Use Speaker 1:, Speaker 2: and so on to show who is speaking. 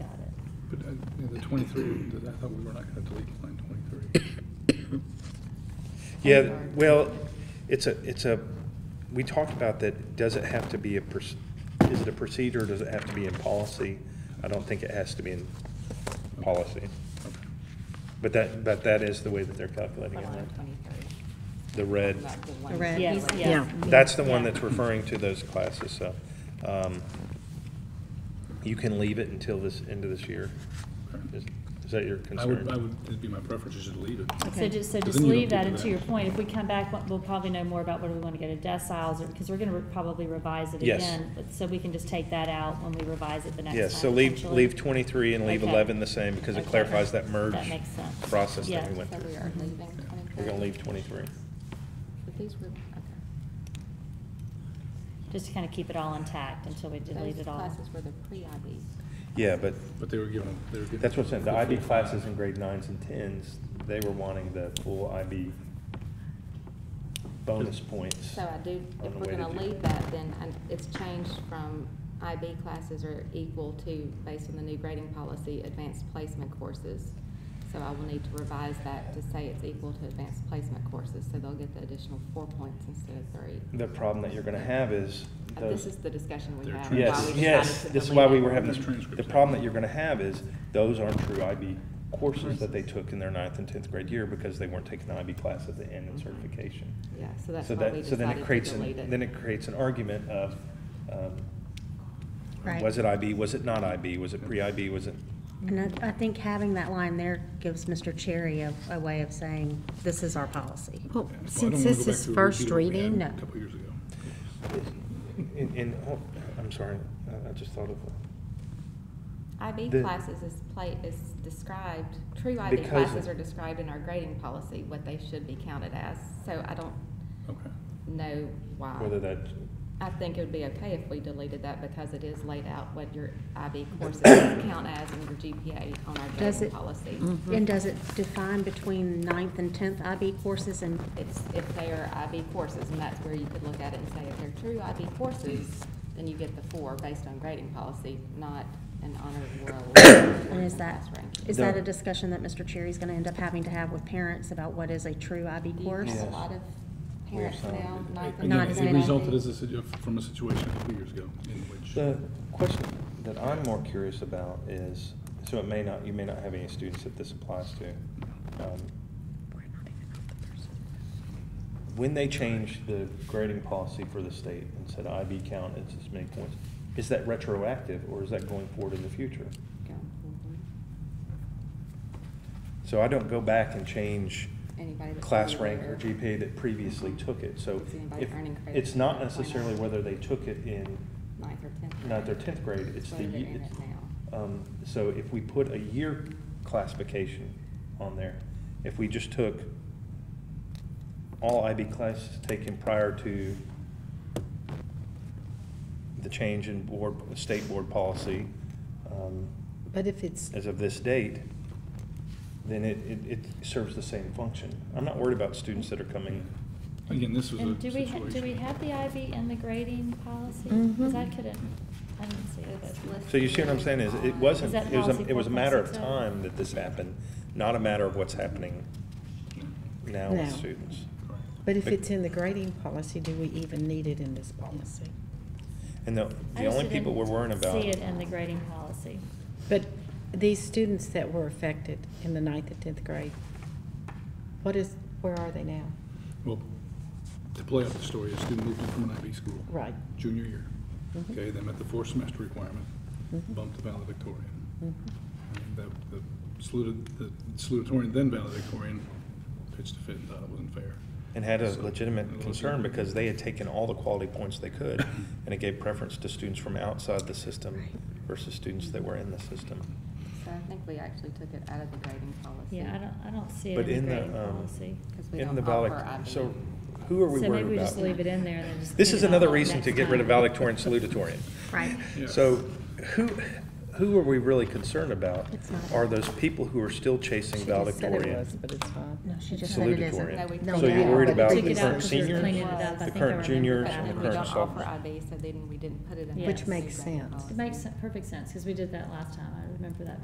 Speaker 1: uh, 23, I thought we were not going to delete line 23.
Speaker 2: Yeah, well, it's a, it's a, we talked about that, does it have to be a, proc- is it a procedure, does it have to be in policy? I don't think it has to be in policy. But that, but that is the way that they're calculating it,
Speaker 3: Line
Speaker 2: right?
Speaker 3: 23,
Speaker 2: the red.
Speaker 3: not the one.
Speaker 4: The red.
Speaker 5: Yes,
Speaker 3: Yeah.
Speaker 5: yes.
Speaker 2: That's the one that's referring to those classes, so, um, you can leave it until this, end of this year. Is is that your
Speaker 1: I would, I
Speaker 2: concern?
Speaker 1: would, it'd be my preference just to delete it.
Speaker 3: So just, so just
Speaker 1: Because then you don't
Speaker 3: leave that,
Speaker 1: get
Speaker 3: and
Speaker 1: to
Speaker 3: to your
Speaker 1: that.
Speaker 3: point, if we come back, we'll- we'll probably know more about whether we want to go to deciles, or, because we're going to probably revise it
Speaker 2: Yes.
Speaker 3: again. but- So we can just take that out when we revise it the next time.
Speaker 2: Yes, so leave,
Speaker 3: potentially.
Speaker 2: leave twenty-three and leave
Speaker 3: Okay.
Speaker 2: eleven the same, because it
Speaker 3: Okay.
Speaker 2: clarifies that merge
Speaker 3: That makes sense.
Speaker 2: process that we
Speaker 3: Yeah.
Speaker 2: went
Speaker 6: So
Speaker 2: through.
Speaker 6: we
Speaker 5: Mm-hmm.
Speaker 6: are leaving
Speaker 2: We're
Speaker 6: 23.
Speaker 2: gonna leave twenty-three.
Speaker 6: But these were, okay.
Speaker 3: Just to kind of keep it all intact until we delete
Speaker 6: Those
Speaker 3: it all.
Speaker 6: classes were the pre-IBs.
Speaker 2: Yeah, but
Speaker 1: But they were given, they were given.
Speaker 2: that's what's in, the IB classes in grade nines and tens, they were wanting the full IB bonus points.
Speaker 6: So I do,
Speaker 2: on
Speaker 6: if
Speaker 2: the
Speaker 6: we're
Speaker 2: way to
Speaker 6: gonna
Speaker 2: do-
Speaker 6: leave that, then I- it's changed from IB classes are equal to, based on the new grading policy, advanced placement courses. So I will need to revise that to say it's equal to advanced placement courses, so they'll get the additional four points instead of three.
Speaker 2: The problem that you're gonna have is
Speaker 6: Uh,
Speaker 2: those.
Speaker 6: This is the discussion we
Speaker 1: They're
Speaker 6: had.
Speaker 1: trans-
Speaker 6: why
Speaker 2: Yes,
Speaker 6: we
Speaker 2: yes,
Speaker 6: decided to
Speaker 2: this is
Speaker 6: delete
Speaker 2: why we
Speaker 6: it.
Speaker 2: were having,
Speaker 1: These transcripts.
Speaker 2: the problem that you're gonna have is, those aren't true IB courses that they took in their ninth and tenth grade year, because they weren't taking the IB class at the end in
Speaker 6: Mm-hmm.
Speaker 2: certification.
Speaker 6: Yeah, so that's
Speaker 2: So
Speaker 6: why we
Speaker 2: that, so then
Speaker 6: decided
Speaker 2: it
Speaker 6: to
Speaker 2: creates,
Speaker 6: delete
Speaker 2: an-
Speaker 6: it.
Speaker 2: then it creates an argument of, um,
Speaker 5: Right.
Speaker 2: was it IB, was it not IB, was it pre-IB, was it?
Speaker 5: And I, I think having that line there gives Mr. Cherry a, a way of saying, this is our policy.
Speaker 1: Well, I
Speaker 4: Well,
Speaker 1: don't wanna
Speaker 4: since
Speaker 1: go
Speaker 4: this
Speaker 1: back
Speaker 4: is
Speaker 1: to a repeat of
Speaker 4: first
Speaker 1: what we had
Speaker 4: reading,
Speaker 5: No.
Speaker 1: A couple years ago.
Speaker 2: In, in, oh, I'm sorry, I- I just thought of,
Speaker 6: IB
Speaker 2: The-
Speaker 6: classes is play, is described, true IB
Speaker 2: Because
Speaker 6: classes
Speaker 2: of-
Speaker 6: are described in our grading policy, what they should be counted as, so I don't
Speaker 1: Okay.
Speaker 6: know why.
Speaker 2: whether that,
Speaker 6: I think it would be okay if we deleted that because it is laid out what your IB courses count as and your GPA on our
Speaker 5: Does
Speaker 6: grading
Speaker 5: it- Mm-hmm.
Speaker 6: policy.
Speaker 5: And does it define between ninth and tenth IB courses and,
Speaker 6: It's if they are IB courses, and that's where you could look at it and say, if they're true IB courses, then you get the four based on grading policy, not an honor roll.
Speaker 5: and is that, is
Speaker 2: The-
Speaker 5: that a discussion that Mr. Cherry's gonna end up having to have with parents about what is a true IB
Speaker 6: Do you
Speaker 5: course?
Speaker 6: have
Speaker 2: Yes.
Speaker 6: a lot of
Speaker 2: We are
Speaker 6: parents
Speaker 2: some.
Speaker 6: now? ninth and
Speaker 5: Not
Speaker 1: Again,
Speaker 5: as
Speaker 1: it
Speaker 5: many.
Speaker 1: resulted as a, situ- from a situation a couple years ago in which.
Speaker 2: the question that I'm more curious about is, so it may not, you may not have any students that this applies to. um, When they changed the grading policy for the state and said IB count is this many points, is that retroactive or is that going forward in the future?
Speaker 6: Go. Mhm.
Speaker 2: So I don't go back and change
Speaker 6: Anybody that's
Speaker 2: class
Speaker 6: already
Speaker 2: rank or
Speaker 6: there.
Speaker 2: GPA that previously took it, so
Speaker 6: Is anybody
Speaker 2: if,
Speaker 6: earning credit
Speaker 2: it's not
Speaker 6: for that point
Speaker 2: necessarily
Speaker 6: now?
Speaker 2: whether they took it in
Speaker 6: Ninth or tenth.
Speaker 2: ninth or tenth grade, it's the,
Speaker 6: Whether they're
Speaker 2: ye-
Speaker 6: in
Speaker 2: it's-
Speaker 6: it now.
Speaker 2: um, so if we put a year classification on there, if we just took all IB classes taken prior to the change in board, state board policy, um,
Speaker 4: but if it's,
Speaker 2: as of this date, then it, it, it serves the same function. I'm not worried about students that are coming.
Speaker 1: Again, this was a
Speaker 3: And do we,
Speaker 1: situation.
Speaker 3: ha- do we have the IB in the grading policy?
Speaker 4: Mhm.
Speaker 3: Because I couldn't, I didn't see it.
Speaker 6: It's
Speaker 3: but-
Speaker 6: listed
Speaker 2: So you see what I'm saying is, it wasn't,
Speaker 3: Is that
Speaker 2: it was, a-
Speaker 3: policy
Speaker 2: it was a matter of
Speaker 3: 4.60?
Speaker 2: time that this happened, not a matter of what's happening now
Speaker 4: Now.
Speaker 2: with students.
Speaker 1: Correct.
Speaker 4: but if it's in the grading policy, do we even need it in this policy?
Speaker 2: And the,
Speaker 3: I
Speaker 2: the
Speaker 3: just
Speaker 2: only people
Speaker 3: didn't
Speaker 2: we're worrying about,
Speaker 3: See it in the grading policy.
Speaker 4: But these students that were affected in the ninth and tenth grade, what is, where are they now?
Speaker 1: Well, to play out the story, a student moved in from an IB school.
Speaker 4: Right.
Speaker 1: Junior year.
Speaker 4: Mhm.
Speaker 1: Okay, they met the fourth semester requirement,
Speaker 4: Mhm.
Speaker 1: bumped to valedictorian.
Speaker 4: Mhm.
Speaker 1: And that- The saluted- the salutatorian, then valedictorian, pitched a fit and thought it wasn't fair.
Speaker 2: and had a
Speaker 1: So-
Speaker 2: legitimate concern because they had taken all the quality points they could, and it gave preference to students from outside the system versus students that were in the system.
Speaker 6: So I think we actually took it out of the grading policy.
Speaker 3: Yeah, I don't, I don't see it
Speaker 2: But
Speaker 3: in
Speaker 2: in
Speaker 3: the
Speaker 2: the,
Speaker 3: grading
Speaker 2: um,
Speaker 3: policy.
Speaker 6: Because we
Speaker 2: In the
Speaker 6: don't offer
Speaker 2: valedic,
Speaker 6: IB.
Speaker 2: so who are we
Speaker 3: So maybe we
Speaker 2: worried
Speaker 3: just leave it
Speaker 2: about?
Speaker 3: in there and then just.
Speaker 2: This
Speaker 3: leave
Speaker 2: is
Speaker 3: it all
Speaker 2: another
Speaker 3: up
Speaker 2: reason to
Speaker 3: next
Speaker 2: get rid of
Speaker 3: time.
Speaker 2: valedictorian and salutatorian.
Speaker 5: Right,
Speaker 1: Yeah.
Speaker 2: So who, who are we really concerned about?
Speaker 5: It's not.
Speaker 2: Are those people who are still chasing
Speaker 4: She just said it
Speaker 2: valedictorian?
Speaker 4: was, but it's
Speaker 5: no,
Speaker 4: fine.
Speaker 5: she just said it isn't.
Speaker 6: No, we
Speaker 2: Salutatorian.
Speaker 5: No,
Speaker 2: So
Speaker 5: we
Speaker 2: you're
Speaker 5: didn't.
Speaker 2: worried
Speaker 5: But
Speaker 2: about
Speaker 5: we
Speaker 2: the
Speaker 5: took it out
Speaker 2: current
Speaker 5: 'cause we were
Speaker 2: seniors,
Speaker 3: cleaning it up. I
Speaker 2: the
Speaker 3: think I
Speaker 2: current
Speaker 3: remember
Speaker 2: juniors
Speaker 3: that.
Speaker 2: and the
Speaker 3: Yeah.
Speaker 6: But we
Speaker 2: current
Speaker 6: don't offer
Speaker 2: sophomores?
Speaker 6: IB, so then we didn't put it in.
Speaker 3: Which
Speaker 6: the
Speaker 4: makes
Speaker 6: grading
Speaker 4: sense.
Speaker 6: policy.
Speaker 3: It makes perfect sense, because we did that last time. I remember that